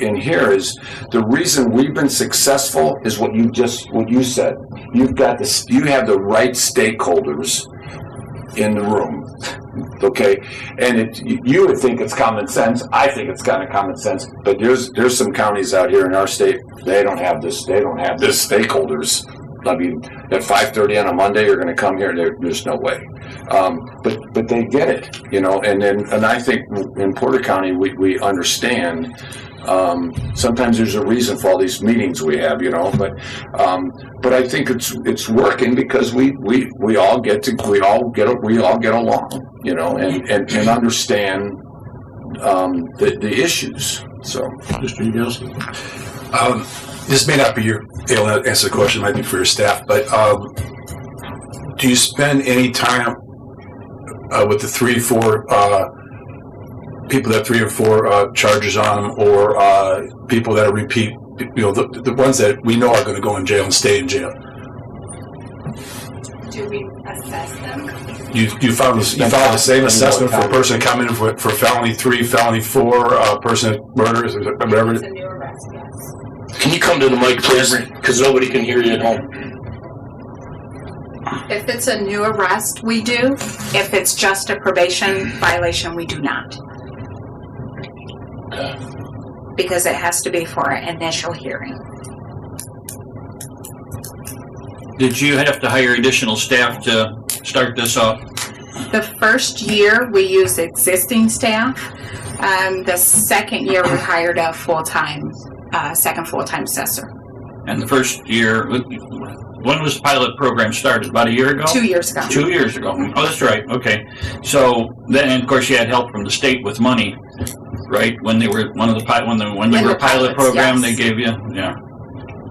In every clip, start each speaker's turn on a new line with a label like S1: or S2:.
S1: in here is, the reason we've been successful is what you just, what you said. You've got this, you have the right stakeholders in the room, okay? And it, you- you would think it's common sense, I think it's kind of common sense, but there's, there's some counties out here in our state, they don't have this, they don't have this stakeholders. I mean, at five thirty on a Monday, you're gonna come here, there, there's no way. Um, but, but they get it, you know, and then, and I think in Porter County, we, we understand um, sometimes there's a reason for all these meetings we have, you know, but, um, but I think it's, it's working because we, we, we all get to, we all get, we all get along, you know, and, and, and understand, um, the, the issues, so.
S2: Mr. Yagowski.
S3: Um, this may not be your, it'll not answer the question, it might be for your staff, but, um, do you spend any time, uh, with the three, to four, uh, people that have three or four, uh, charges on them, or, uh, people that are repeat, you know, the, the ones that we know are gonna go in jail and stay in jail?
S4: Do we assess them?
S3: You, you found, the- you found the same assessment for a person coming in for, for felony three, felony four, uh, person murders, whatever,
S4: It's a new arrest, yes.
S5: Can you come to the mic, please? Because nobody can hear you at home.
S4: If it's a new arrest, we do. If it's just a probation violation, we do not. Because it has to be for an initial hearing.
S6: Did you have to hire additional staff to start this off?
S4: The first year, we use existing staff. Um, the second year, we hired a full-time, uh, second full-time assessor,
S6: And the first year, when was the pilot program started? About a year ago?
S4: two years ago.
S6: Two years ago. Oh, that's right. Okay. So then, and of course, you had help from the state with money, right? When they were one of the pi- when the when
S4: When
S6: you were
S4: the
S6: a pilot
S4: pilots,
S6: program,
S4: yes.
S6: they gave you yeah.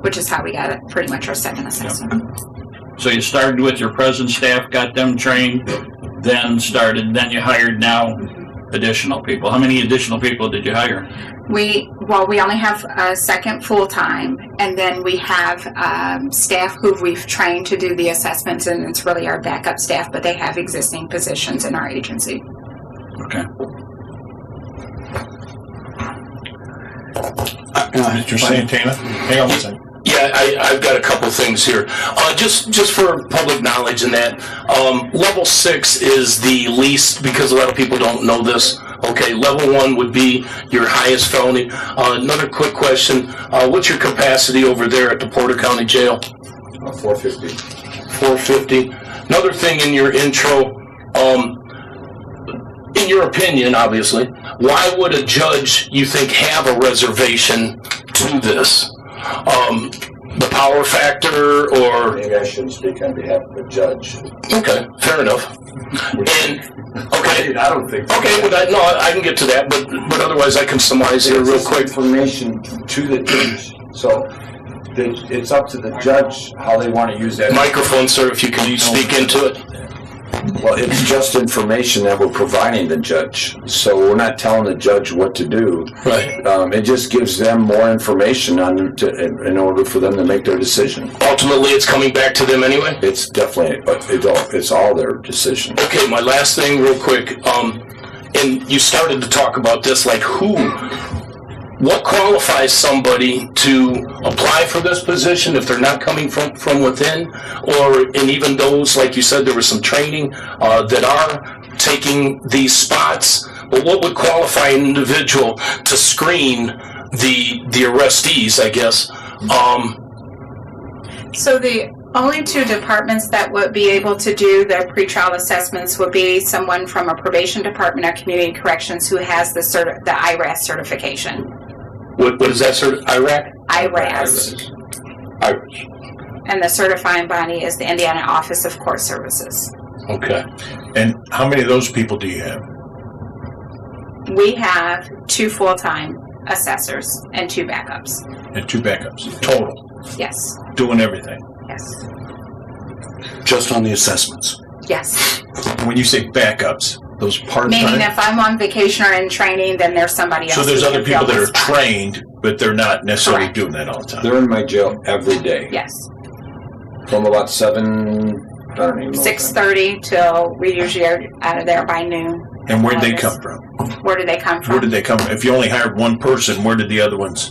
S4: Which is how we got it, pretty much our second assessor.
S6: So you started with your present staff, got them trained, then started, then you hired now additional people. How many additional people did you hire?
S4: We, well, we only have a second full-time, and then we have um, staff who we've trained to do the assessments, and it's really our backup staff, but they have existing positions in our agency.
S6: Okay.
S2: Mr. Santana. Hang on one second.
S5: Yeah, I, I've got a couple things here. Uh, just, just for public knowledge and that, um, level six is the least, because a lot of people don't know this. Okay, level one would be your highest felony. Uh, another quick question, uh, what's your capacity over there at the Porter County Jail?
S1: Uh, Four fifty.
S5: 450. Another thing in your intro, um, in your opinion, obviously, why would a judge, you think, have a reservation to this? Um, the power factor or,
S1: Maybe I shouldn't speak on behalf of a judge.
S5: okay, fair enough. And, okay,
S1: I don't think.
S5: okay, well, that, no, I can get to that, but, but otherwise I can summarize here real quick.
S1: Information to the judge, so the- it's up to the judge how they want to use that.
S5: Microphone, sir, if you can speak into it.
S1: Well, it's just information that we're providing the judge, so we're not telling the judge what to do.
S5: Right.
S1: Um, it just gives them more information on, to, in in order for them to make their decision.
S5: Ultimately, it's coming back to them anyway?
S1: It's definitely, it's all, it's all their decision.
S5: Okay, my last thing, real quick. Um, and you started to talk about this, like who, what qualifies somebody to apply for this position if they're not coming from from within, or and even those, like you said, there was some training uh, that are taking these spots. But what would qualify an individual to screen the the arrestees? I guess. Um,
S4: So the only two departments that would be able to do the pretrial assessments would be someone from a probation department or community corrections who has the cert, the IRAS certification.
S5: what, what is that sort of Iraq?
S4: IRAS.
S5: I-
S4: And the certifying body is the Indiana Office of Court Services.
S5: Okay.
S2: And how many of those people do you have?
S4: We have two full-time assessors and two backups.
S2: And two backups, total,
S4: Yes,
S2: doing everything.
S4: yes,
S3: just on the assessments.
S4: yes.
S2: When you say backups, those
S4: Meaning
S2: part-time,
S4: if I'm on vacation or in training, then there's somebody else.
S2: so there's
S4: who
S2: other
S4: can fill
S2: people that
S4: my
S2: are
S4: spot.
S2: trained, but they're not necessarily
S4: Correct.
S2: doing that all the time.
S1: They're in my jail every day,
S4: Yes,
S1: from about seven, I don't even know. what time.
S4: six thirty till we usually are out of there by noon.
S6: And where'd they come from?
S7: Where do they come from?
S6: Where did they come? If you only hired one person, where did the other ones?